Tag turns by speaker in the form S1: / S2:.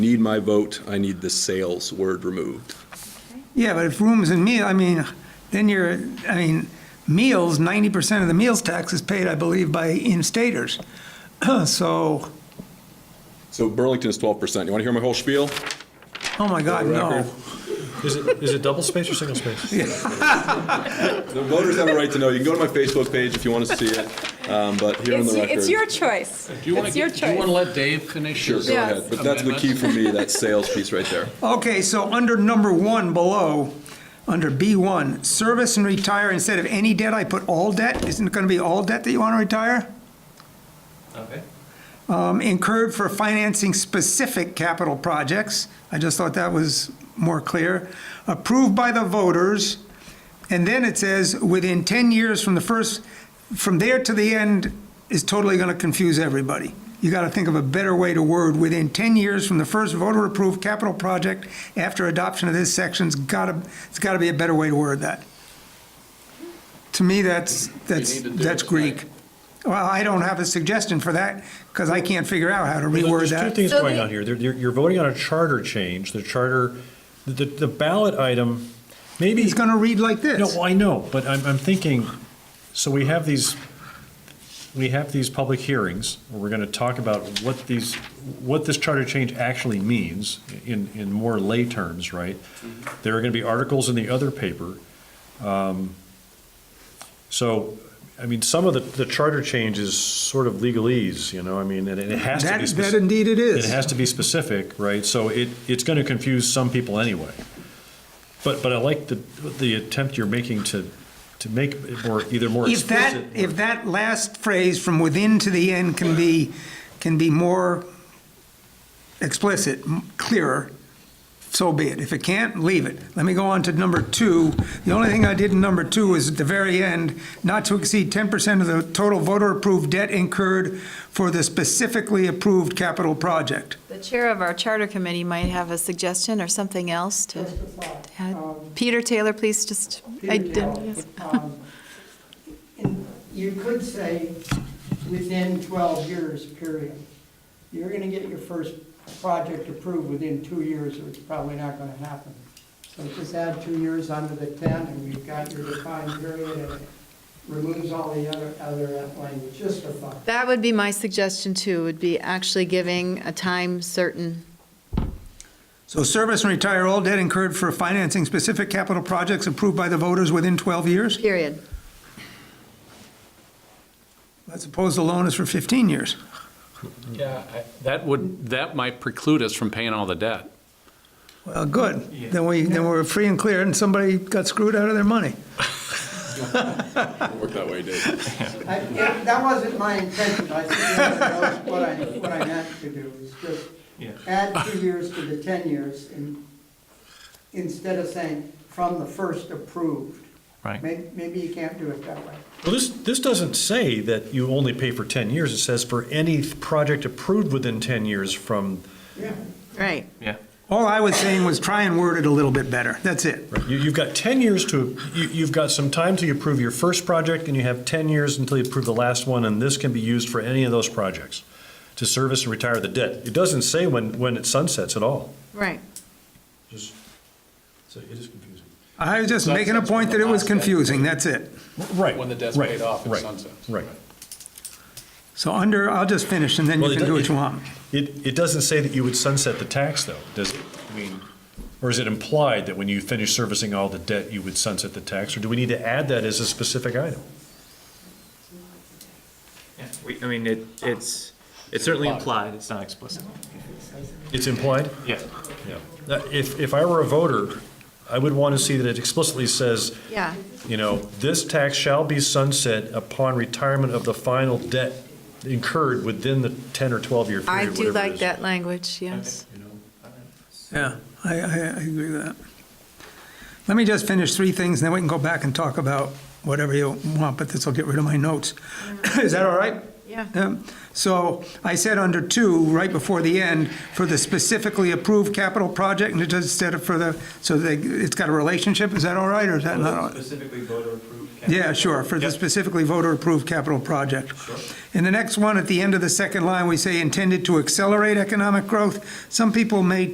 S1: need my vote, I need the sales word removed.
S2: Yeah, but if rooms and meal, I mean, then you're, I mean, meals, ninety percent of the meals tax is paid, I believe, by in-staters. So,
S1: So Burlington is 12%. You want to hear my whole spiel?
S2: oh my God, no.
S3: Is it, is it double space or single space?
S1: The voters have a right to know. You can go to my Facebook page if you want to see it, um, but here on
S4: It's,
S1: the record.
S4: it's your choice.
S5: Do you want
S4: It's your
S5: to, do you want to
S4: choice.
S5: let Dave finish
S1: Sure,
S5: his?
S1: go ahead. But that's the key for me, that sales piece right there.
S2: Okay, so under number one below, under B1, service and retire, instead of any debt, I put all debt. Isn't it gonna be all debt that you wanna retire?
S5: Okay.
S2: Um, Incurred for financing specific capital projects. I just thought that was more clear. Approved by the voters. And then it says, within 10 years from the first, from there to the end is totally going to confuse everybody. You got to think of a better way to word, within 10 years from the first voter-approved capital project after adoption of this section's got to, it's got to be a better way to word that. To me, that's, that's,
S5: need to do
S2: that's
S5: it.
S2: Greek. Well, I don't have a suggestion for that because I can't figure out how to reword
S3: There's two
S2: that.
S3: things
S4: So
S3: going
S4: the-
S3: on here. There- You're, you're voting on a charter change, the charter, the, the ballot item, maybe.
S2: He's going to read like this.
S3: No, I know, but I'm, I'm thinking, so we have these, we have these public hearings, where we're gonna talk about what these, what this charter change actually means in, in more lay terms, right?
S2: Mm-hmm.
S3: There are gonna be articles in the other paper. Um, So, I mean, some of the, the charter change is sort of legalese, you know, I mean, and it has to
S2: That,
S3: be. spec-
S2: that indeed it is.
S3: it has to be specific, right? So it, it's going to confuse some people anyway. But, but I like the, the attempt you're making to, to make it more, either more
S2: If that,
S3: explicit.
S2: if that last phrase from within to the end can be, can be more explicit, m- clearer, so be it. If it can't, leave it. Let me go on to number two. The only thing I did in number two is at the very end, not to exceed ten percent of the total voter-approved debt incurred for the specifically approved capital project.
S4: The chair of our charter committee might have a suggestion or something else to add. Peter Taylor, please just, I
S6: Peter
S4: didn't,
S6: Taylor.
S4: yes.
S6: Um, and You could say within 12 years, period. You're going to get your first project approved within two years, or it's probably not going to happen. So just add two years onto the 10, and we've got your defined period, and it removes all the other, other language, just for fun.
S4: That would be my suggestion too, would be actually giving a time certain.
S2: So service and retire all debt incurred for financing specific capital projects approved by the voters within twelve years?
S4: Period.
S2: I suppose the loan is for fifteen years.
S5: Yeah, I- that would, that might preclude us from paying all the debt.
S2: Well, good. Then we, then we're free and clear, and somebody got screwed out of their money.
S1: Work that way, Dave.
S6: I- it- That wasn't my intention, I think that was what I, what I meant to do, is just add two years to the 10 years, and instead of saying, from the first approved.
S3: Right.
S6: May- Maybe you can't do it that way.
S3: Well, this, this doesn't say that you only pay for 10 years. It says for any project approved within 10 years from,
S6: Yeah.
S4: Right.
S2: All I was saying was try and word it a little bit better. That's it.
S3: you, you've got 10 years to, you, you've got some time to approve your first project and you have 10 years until you approve the last one and this can be used for any of those projects to service and retire the debt. It doesn't say when, when it sunsets at all.
S4: Right.
S3: Just, so it is confusing.
S2: I was just making a point that it was confusing, that's it.
S3: Right.
S5: When the debt's
S3: right,
S5: paid off, it
S3: right,
S5: sunsets.
S3: Right.
S2: So under, I'll just finish, and then you
S3: Well, it
S2: can do
S3: do-
S2: what you want.
S3: It, it doesn't say that you would sunset the tax, though, does it? I mean, or is it implied that when you finish servicing all the debt, you would sunset the tax? Or do we need to add that as a specific item?
S7: Yeah, we, I mean, it, it's, it's certainly implied, it's not explicit.
S3: It's implied?
S7: Yeah.
S3: Yeah. That- If, if I were a voter, I would want to see that it explicitly says,
S4: Yeah.
S3: you know, this tax shall be sunset upon retirement of the final debt incurred within the 10 or 12-year period,
S4: I do
S3: whatever it
S4: like
S3: is.
S4: that language, yes.
S2: Yeah, I, I, I agree with that. Let me just finish three things, and then we can go back and talk about whatever you want, but this will get rid of my notes. Is that all right?
S4: Yeah.
S2: Um, So I said under two, right before the end, for the specifically approved capital project and it does- instead of for the, so they, it's got a relationship, is that all right or is that not? all right?
S8: Specifically voter approved.
S2: Yeah, sure, for the specifically voter-approved capital project. And the next one, at the end of the second line, we say intended to accelerate economic growth. Some people may